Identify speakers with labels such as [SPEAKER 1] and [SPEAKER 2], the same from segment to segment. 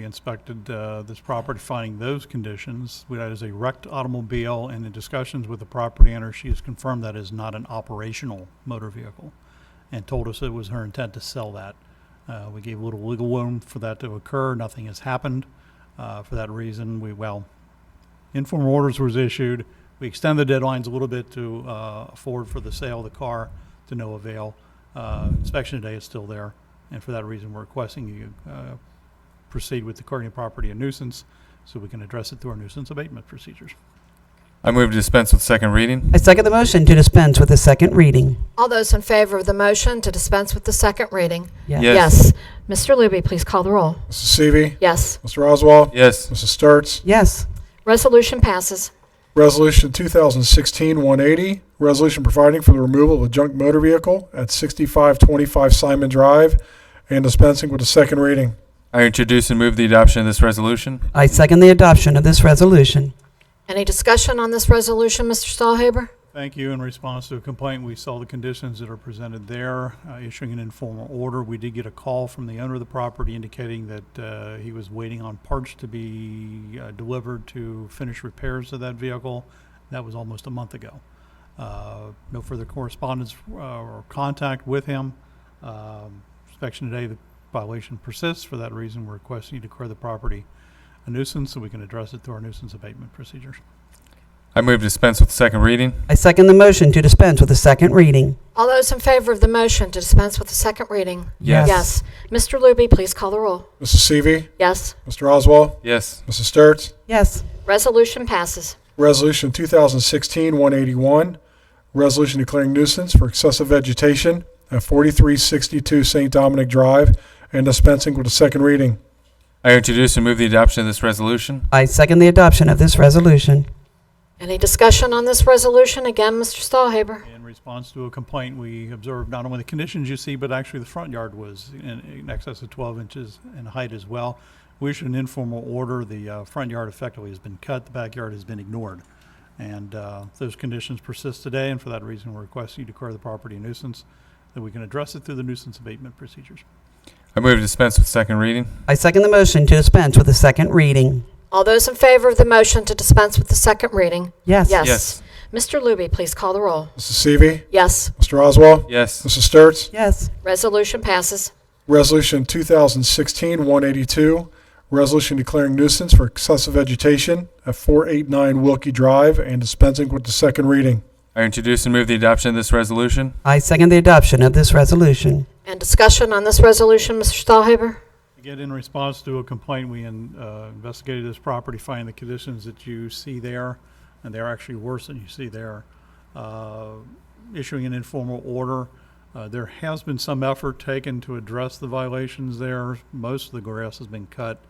[SPEAKER 1] We inspected uh, this property, finding those conditions. We- That is a wrecked automobile, and in discussions with the property owner, she has confirmed that is not an operational motor vehicle, and told us it was her intent to sell that. Uh, We gave a little legal room for that to occur. Nothing has happened. Uh, For that reason, we, well, informal orders was issued. We extended the deadlines a little bit to uh, afford for the sale of the car to no avail. Uh, Inspection today is still there, and for that reason, we're requesting you uh, proceed with declaring the property a nuisance so we can address it through our nuisance abatement procedures.
[SPEAKER 2] I move to dispense with second reading.
[SPEAKER 3] I second the motion to dispense with the second reading.
[SPEAKER 4] All those in favor of the motion to dispense with the second reading?
[SPEAKER 2] Yes.
[SPEAKER 4] Mr. Luby, please call the roll.
[SPEAKER 5] Mrs. Seavey.
[SPEAKER 4] Yes.
[SPEAKER 5] Mr. Oswald.
[SPEAKER 2] Yes.
[SPEAKER 5] Mrs. Sturts.
[SPEAKER 3] Yes.
[SPEAKER 4] Resolution passes.
[SPEAKER 5] Resolution 2016-180, resolution providing for the removal of a junk motor vehicle at 6525 Simon Drive and dispensing with the second reading.
[SPEAKER 2] I introduce and move the adoption of this resolution.
[SPEAKER 3] I second the adoption of this resolution.
[SPEAKER 4] Any discussion on this resolution, Mr. Stahlhaber?
[SPEAKER 1] Thank you. In response to a complaint, we saw the conditions that are presented there, uh, issuing an informal order. We did get a call from the owner of the property indicating that uh, he was waiting on parts to be uh, delivered to finish repairs of that vehicle. That was almost a month ago. Uh, No further correspondence uh, or contact with him. Um, Inspection today, the violation persists. For that reason, we're requesting you declare the property a nuisance so we can address it through our nuisance abatement procedures.
[SPEAKER 2] I move to dispense with second reading.
[SPEAKER 3] I second the motion to dispense with the second reading.
[SPEAKER 4] All those in favor of the motion to dispense with the second reading?
[SPEAKER 3] Yes.
[SPEAKER 4] Yes. Mr. Luby, please call the roll.
[SPEAKER 5] Mrs. Seavey.
[SPEAKER 4] Yes.
[SPEAKER 5] Mr. Oswald.
[SPEAKER 2] Yes.
[SPEAKER 5] Mrs. Sturts.
[SPEAKER 3] Yes.
[SPEAKER 4] Resolution passes.
[SPEAKER 5] Resolution 2016-181, resolution declaring nuisance for excessive vegetation at 4362 St. Dominic Drive and dispensing with the second reading.
[SPEAKER 2] I introduce and move the adoption of this resolution.
[SPEAKER 3] I second the adoption of this resolution.
[SPEAKER 4] Any discussion on this resolution? Again, Mr. Stahlhaber?
[SPEAKER 1] In response to a complaint, we observed not only the conditions you see, but actually the front yard was in, in excess of 12 inches in height as well. We issued an informal order. The uh, front yard effectively has been cut, the backyard has been ignored. And uh, those conditions persist today, and for that reason, we're requesting you declare the property a nuisance, that we can address it through the nuisance abatement procedures.
[SPEAKER 2] I move to dispense with second reading.
[SPEAKER 3] I second the motion to dispense with the second reading.
[SPEAKER 4] All those in favor of the motion to dispense with the second reading?
[SPEAKER 3] Yes.
[SPEAKER 4] Yes. Mr. Luby, please call the roll.
[SPEAKER 5] Mrs. Seavey.
[SPEAKER 4] Yes.
[SPEAKER 5] Mr. Oswald.
[SPEAKER 2] Yes.
[SPEAKER 5] Mrs. Sturts.
[SPEAKER 3] Yes.
[SPEAKER 4] Resolution passes.
[SPEAKER 5] Resolution 2016-182, resolution declaring nuisance for excessive vegetation at 489 Wilkie Drive and dispensing with the second reading.
[SPEAKER 2] I introduce and move the adoption of this resolution.
[SPEAKER 3] I second the adoption of this resolution.
[SPEAKER 4] And discussion on this resolution, Mr. Stahlhaber?
[SPEAKER 1] Again, in response to a complaint, we in- uh, investigated this property, finding the conditions that you see there, and they're actually worse than you see there. Uh, Issuing an informal order, uh, there has been some effort taken to address the violations there. Most of the grass has been cut,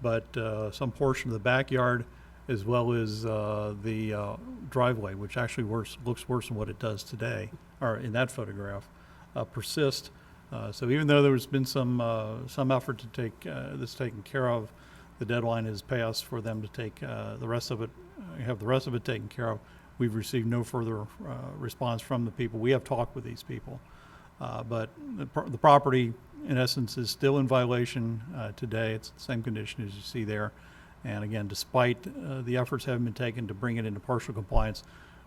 [SPEAKER 1] but uh, some portion of the backyard as well as uh, the uh, driveway, which actually worse, looks worse than what it does today, or in that photograph, uh, persist. Uh, So even though there's been some, uh, some effort to take uh, this taken care of, the deadline has passed for them to take uh, the rest of it, uh, have the rest of it taken care of. We've received no further uh, response from the people. We have talked with these people. Uh, But the pro- the property, in essence, is still in violation uh, today. It's the same condition as you see there. And again, despite uh, the efforts having been taken to bring it into partial compliance,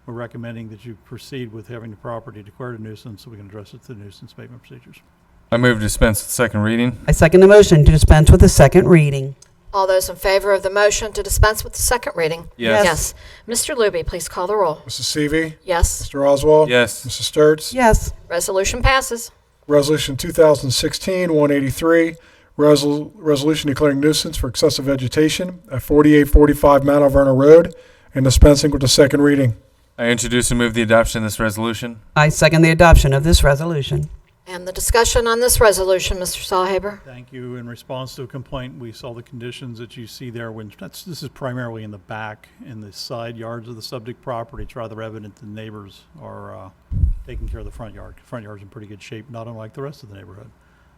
[SPEAKER 1] we're recommending that you proceed with having the property declared a nuisance so we can address it through nuisance abatement procedures.
[SPEAKER 2] I move to dispense with second reading.
[SPEAKER 3] I second the motion to dispense with the second reading.
[SPEAKER 4] All those in favor of the motion to dispense with the second reading?
[SPEAKER 2] Yes.
[SPEAKER 4] Yes. Mr. Luby, please call the roll.
[SPEAKER 5] Mrs. Seavey.
[SPEAKER 4] Yes.
[SPEAKER 5] Mr. Oswald.
[SPEAKER 2] Yes.
[SPEAKER 5] Mrs. Sturts.
[SPEAKER 3] Yes.
[SPEAKER 4] Resolution passes.
[SPEAKER 5] Resolution 2016-183, resol- resolution declaring nuisance for excessive vegetation at 4845 Mount Alverna Road and dispensing with the second reading.
[SPEAKER 2] I introduce and move the adoption of this resolution.
[SPEAKER 3] I second the adoption of this resolution.
[SPEAKER 4] And the discussion on this resolution, Mr. Stahlhaber?
[SPEAKER 1] Thank you. In response to a complaint, we saw the conditions that you see there when, that's, this is primarily in the back, in the side yards of the subject property. It's rather evident the neighbors are uh, taking care of the front yard. Front yard's in pretty good shape, not unlike the rest of the neighborhood.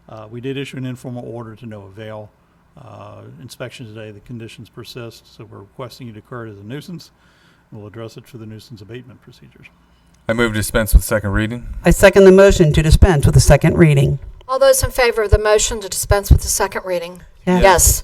[SPEAKER 1] Uh, We did issue an informal order to no avail. Uh, Inspection today, the conditions persist, so we're requesting you declare it as a nuisance. We'll address it through the nuisance abatement procedures.
[SPEAKER 2] I move to dispense with second reading.
[SPEAKER 3] I second the motion to dispense with the second reading.
[SPEAKER 4] All those in favor of the motion to dispense with the second reading?
[SPEAKER 3] Yes.
[SPEAKER 4] Yes.